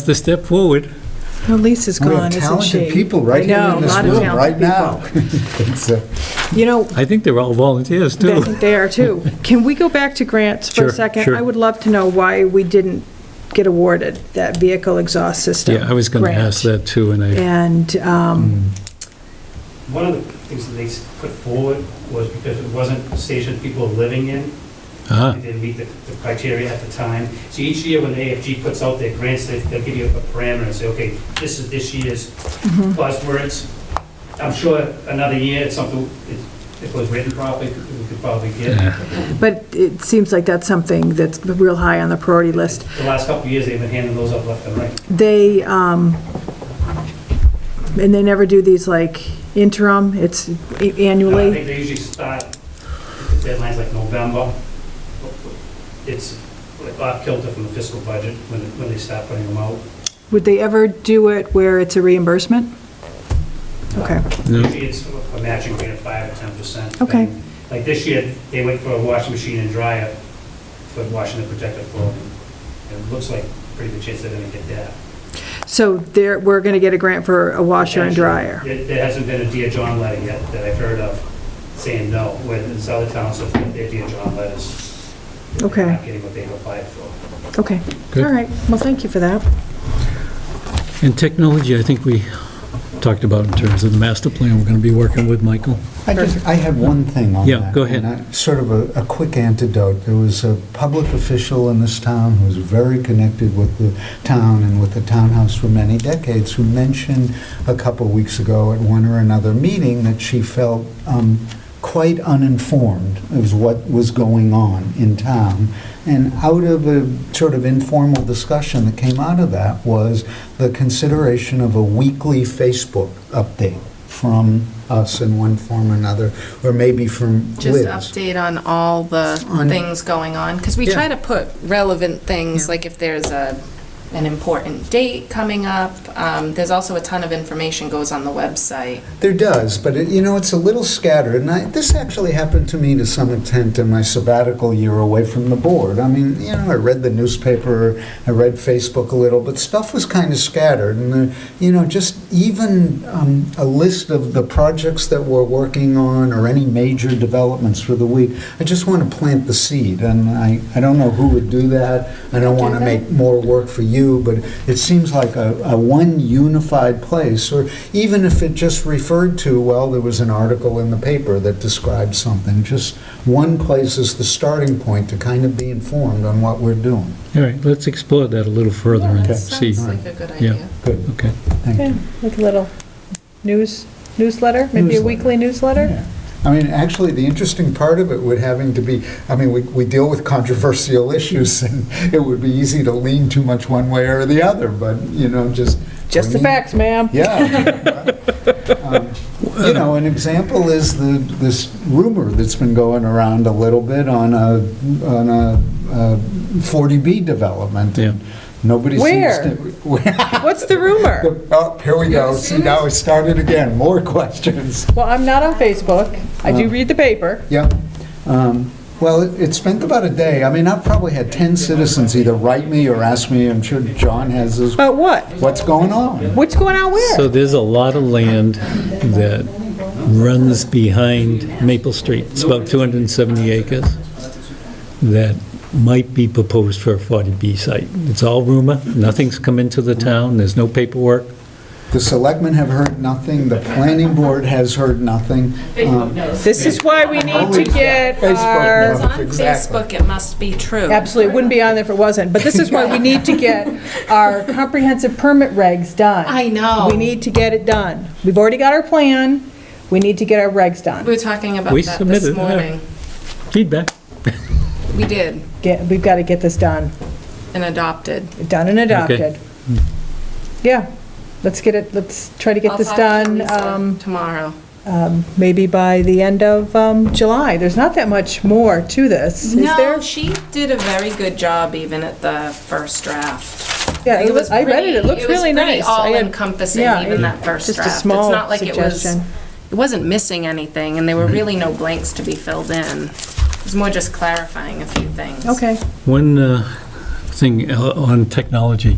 It's the step forward. Well, Lisa's We gone, have isn't talented she? people right I here know, in this a lot of room, talented right now. So, You know, I think they're all volunteers, they too. they are too. Can we go back to grants for Sure, a second? sure. I would love to know why we didn't get awarded that vehicle exhaust system. Yeah, I was going to ask grant. that, too, and I, And, um, One of the things that they s- put forward was because it wasn't a station people were living in, ah, it didn't meet the the criteria at the time. So each year when AFG puts out their grants, they- they'll give you a parameter and say, okay, this is this year's buzzwords. I'm sure another year, it's something, if it was written properly, we could probably get. Mm. but it seems like that's something that's real high on the priority list. The last couple of years, they've been handing those up left and right. They, um, and they never do these like interim, it's a- Uh, I annually. think they usually start, the deadline's like November. It's like off kilter from the fiscal budget when when they start putting them out. Would they ever do it where it's a reimbursement? Okay, no, Usually it's a matching rate of five or ten percent. Okay. Like this year, they went for a washing machine and dryer for washing the protective clothing. It looks like pretty good chance they're gonna get that. so there, we're going to get a grant for a washer and dryer. There there hasn't been a Dear John letter yet that I've heard of saying no, when in other towns have got their Dear John letters. They're Okay. Not getting what they've applied for. Okay, all Good. right, well, thank you for that. And technology, I think we talked about in terms of the master plan, we're going to be working with Michael. I just, I had one thing on that. Yeah, go ahead. and I- Sort of a, a quick antidote. There was a public official in this town who was very connected with the town and with the townhouse for many decades, who mentioned a couple weeks ago at one or another meeting that she felt um, quite uninformed of what was going on in town. And out of a sort of informal discussion that came out of that was the consideration of a weekly Facebook update from us in one form or another, or maybe from Just Liz. update on all the On- things going on, because we Yeah. try to put relevant things, Yeah. like if there's a, an important date coming up. Um, There's also a ton of information goes on the website. There does, but it, you know, it's a little scattered. And I, this actually happened to me to some extent in my sabbatical year away from the board. I mean, you know, I read the newspaper, I read Facebook a little, but stuff was kind of scattered. And, uh, you know, just even um, a list of the projects that we're working on or any major developments for the week, I just want to plant the seed. And I, I don't know who would do that. I don't want to Do that. make more work for you, but it seems like a, a one unified place, or even if it just referred to, well, there was an article in the paper that described something, just one place is the starting point to kind of be informed on what we're doing. All right, let's explore that a little further Yeah, and that see. Sounds like a good Yeah. idea. Good, Okay, thank you. Yeah, like a little news, newsletter, maybe a Newsletter. weekly newsletter? Yeah. I mean, actually, the interesting part of it would having to be, I mean, we, we deal with controversial issues, and it would be easy to lean too much one way or the other, but, you know, just. Just the bringing- facts, ma'am. Yeah. Um, You know, an example is the, this rumor that's been going around a little bit on a, on a uh, 40B development. Yeah. Nobody seems Where? to. Where? What's the rumor? Oh, here we go. See, now it started again. More questions. Well, I'm not on Facebook. I Uh. do read the paper. Yeah. Um, Well, it it spent about a day. I mean, I've probably had 10 citizens either write me or ask me, I'm sure John has his, But what? what's going on? What's going on so where? there's a lot of land that runs behind Maple Street. It's about 270 acres that might be proposed for a 40B site. It's all rumor, nothing's come into the town, there's no paperwork. The selectmen have heard nothing, the planning board has heard nothing. Um, This is why we need to get Facebook our, It's It's on on Exactly. Facebook, it must be true. absolutely, it wouldn't be on there if it wasn't, but this is why we need to get our comprehensive permit regs done. I know. We need to get it done. We've already got our plan. We need to get our regs We done. were talking about We that submitted, this yeah. morning. Feedback? We did, Get, we've got to get this done, and adopted. done and adopted. Yeah, let's get it, let's try to get I'll this talk to done. Lisa um, Tomorrow. um, maybe by the end of um, July. There's not that much more to this, is there? No, she did a very good job even at the first draft. Yeah, Like, it was- I read it, it pretty- looked really nice. was I pretty had- all-encompassing, yeah, even it- that first just a draft. It's small not like it was- suggestion. It wasn't missing anything, and there were really no blanks to be filled in. It was more just clarifying a few things. Okay, One uh, thing uh, on technology.